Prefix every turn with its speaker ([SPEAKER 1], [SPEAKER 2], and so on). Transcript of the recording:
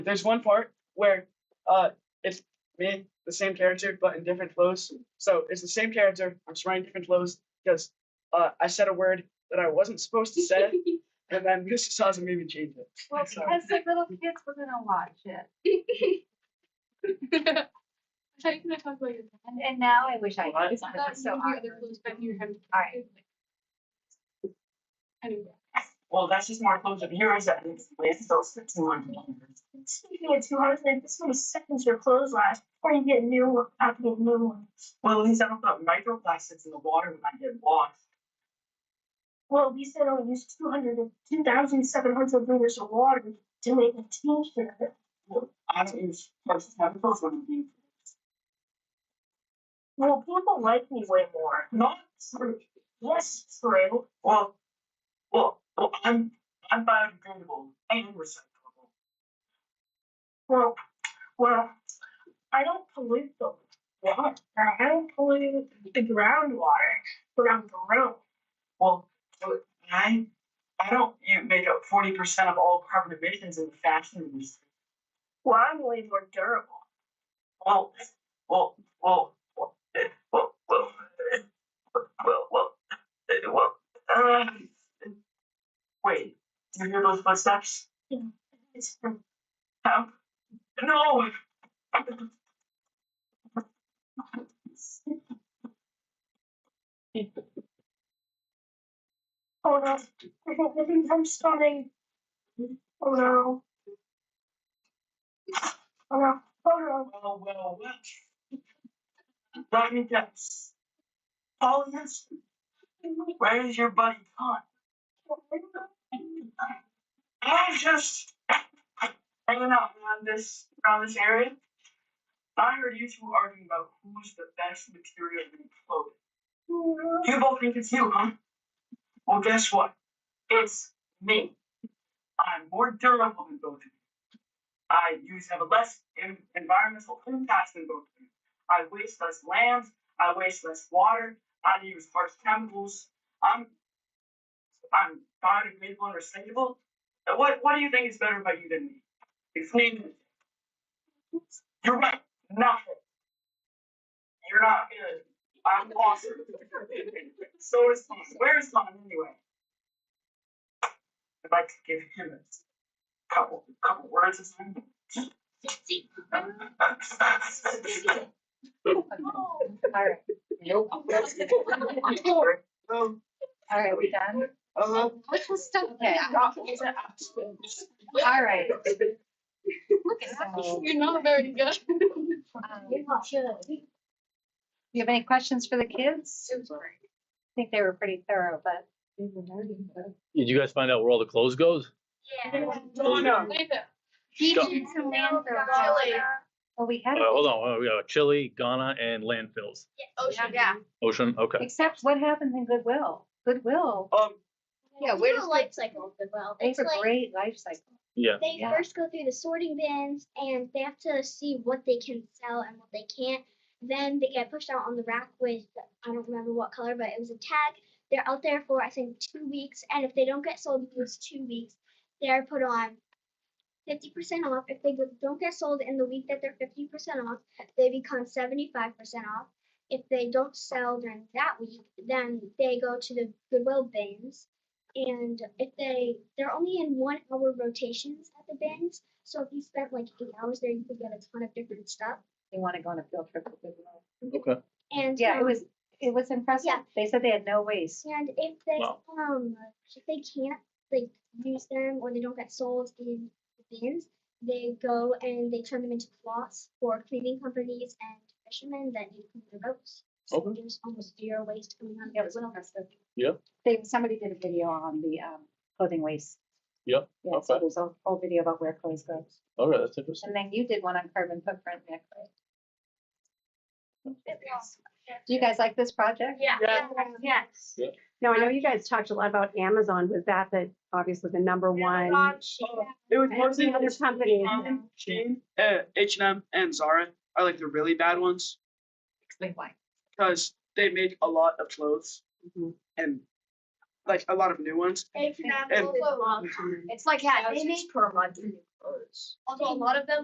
[SPEAKER 1] there's one part where uh it's me, the same character, but in different flows. So it's the same character. I'm just writing different flows because uh, I said a word that I wasn't supposed to say, and then Mr. Saza made me change it.
[SPEAKER 2] Well,
[SPEAKER 1] Sorry.
[SPEAKER 2] because the little kids were gonna watch it,
[SPEAKER 3] I thought you were gonna talk about your
[SPEAKER 2] and, and now I wish I
[SPEAKER 1] Well, I-
[SPEAKER 2] could. It's
[SPEAKER 3] I thought you
[SPEAKER 2] so
[SPEAKER 3] knew the other
[SPEAKER 2] awkward.
[SPEAKER 3] clues, but you had.
[SPEAKER 2] Alright.
[SPEAKER 3] Anyway.
[SPEAKER 4] Well, that's just more closure. Here is that it's still six hundred dollars.
[SPEAKER 5] Speaking of two hundred, like this one seconds your clothes last, or you get new one. I have to get new ones.
[SPEAKER 4] Well, at least I don't put microplastics in the water when I get washed.
[SPEAKER 5] Well, at least I don't use two hundred or two thousand seven hundred liters of water to make a t-shirt.
[SPEAKER 4] I don't use precious chemicals when I'm being.
[SPEAKER 5] Well, people like me way more.
[SPEAKER 4] Not true.
[SPEAKER 5] Yes, it's true.
[SPEAKER 4] Well, well, well, I'm I'm biodegradable and recyclable.
[SPEAKER 5] Well, well, I don't pollute the water. I don't pollute the groundwater, but I'm grown.
[SPEAKER 4] Well, but I I don't you make up forty percent of all carbon emissions in the fashion industry.
[SPEAKER 5] Well, I'm way more durable.
[SPEAKER 4] Well, well, well, well, eh, well, well, eh, well, well, eh, well, uh, wait, do you hear those footsteps?
[SPEAKER 5] It's
[SPEAKER 4] Um, no,
[SPEAKER 5] Oh no, I think, I think I'm stunning. Oh no. Oh no, oh no.
[SPEAKER 4] well, well, well. Let me guess. Polyester. Where is your buddy Todd? I'm just hanging out around this around this area. I heard you two arguing about who's the best material to be clothing. You both think it's you, huh? Well, guess what? It's me. I'm more durable than both of you. I use have a less en- environmental impact than both of you. I waste less land. I waste less water. I use harsh chemicals. I'm I'm biodegradable and recyclable. Uh, What What do you think is better about you than me? It's me. You're right. Nothing. You're not good. I'm awesome. so is Tom. Where is Tom anyway? I'd like to give him a couple couple words or something.
[SPEAKER 2] Alright,
[SPEAKER 1] Nope. Um,
[SPEAKER 2] alright, we done?
[SPEAKER 1] uh,
[SPEAKER 3] What was stuff
[SPEAKER 2] Okay. Alright. Look at that. Do
[SPEAKER 3] You're not very good.
[SPEAKER 2] um, you have any questions for the kids? I think they were pretty thorough, but.
[SPEAKER 6] Did you guys find out where all the clothes goes?
[SPEAKER 1] Donna.
[SPEAKER 3] Neither.
[SPEAKER 2] He
[SPEAKER 6] Go.
[SPEAKER 2] did some landfill.
[SPEAKER 3] Chili.
[SPEAKER 2] Well, we
[SPEAKER 6] Uh,
[SPEAKER 2] had,
[SPEAKER 6] hold on, we got Chile, Ghana, and landfills.
[SPEAKER 7] Oh,
[SPEAKER 3] Ocean.
[SPEAKER 8] Yeah.
[SPEAKER 6] Ocean, okay.
[SPEAKER 2] except what happened in Goodwill? Goodwill,
[SPEAKER 1] um,
[SPEAKER 8] Yeah, where does life cycle of the well?
[SPEAKER 2] they
[SPEAKER 8] It's
[SPEAKER 2] have a
[SPEAKER 8] like
[SPEAKER 2] great life cycle.
[SPEAKER 6] Yeah.
[SPEAKER 8] they
[SPEAKER 2] yeah.
[SPEAKER 8] first go through the sorting bins and they have to see what they can sell and what they can't. Then they get pushed out on the rack with I don't remember what color, but it was a tag. They're out there for I think two weeks, and if they don't get sold in those two weeks, they're put on fifty percent off. If they don't get sold in the week that they're fifty percent off, they become seventy five percent off. If they don't sell during that week, then they go to the Goodwill bins and if they they're only in one hour rotations at the bins so if you spent like eight hours there you could get a ton of different stuff
[SPEAKER 2] They want to go on a field trip to Goodwill.
[SPEAKER 6] Okay.
[SPEAKER 8] and
[SPEAKER 2] Yeah, it
[SPEAKER 8] um,
[SPEAKER 2] was, it was impressive.
[SPEAKER 8] Yeah.
[SPEAKER 2] They said they had no waste.
[SPEAKER 8] and if they
[SPEAKER 6] Wow.
[SPEAKER 8] um if they can't like use them or they don't get sold in the bins they go and they turn them into cloths for cleaning companies and fishermen that need to clean their boats so
[SPEAKER 6] Okay.
[SPEAKER 8] there's almost zero waste coming out of
[SPEAKER 2] Um, Yeah, it
[SPEAKER 8] the
[SPEAKER 2] was impressive.
[SPEAKER 6] Yeah.
[SPEAKER 2] They, somebody did a video on the um, clothing waste.
[SPEAKER 6] Yeah,
[SPEAKER 2] Yeah, so
[SPEAKER 6] okay.
[SPEAKER 2] there's a whole video about where clothes go.
[SPEAKER 6] All right, that's interesting.
[SPEAKER 2] And then you did one on carbon footprint, Nick, right? Do you guys like this project?
[SPEAKER 8] yeah,
[SPEAKER 1] Yeah.
[SPEAKER 8] yes
[SPEAKER 7] No, I know you guys talked a lot about Amazon. Was that the, obviously the number one?
[SPEAKER 1] it was
[SPEAKER 7] And
[SPEAKER 1] mostly
[SPEAKER 7] the other companies.
[SPEAKER 1] H&M, Shein, uh, H&M and Zara are like the really bad ones
[SPEAKER 2] Explain why.
[SPEAKER 1] because they make a lot of clothes and like a lot of new ones.
[SPEAKER 2] It's not
[SPEAKER 1] And-
[SPEAKER 2] also,
[SPEAKER 7] It's like, yeah,
[SPEAKER 2] Thousands
[SPEAKER 7] per month. Although a lot of them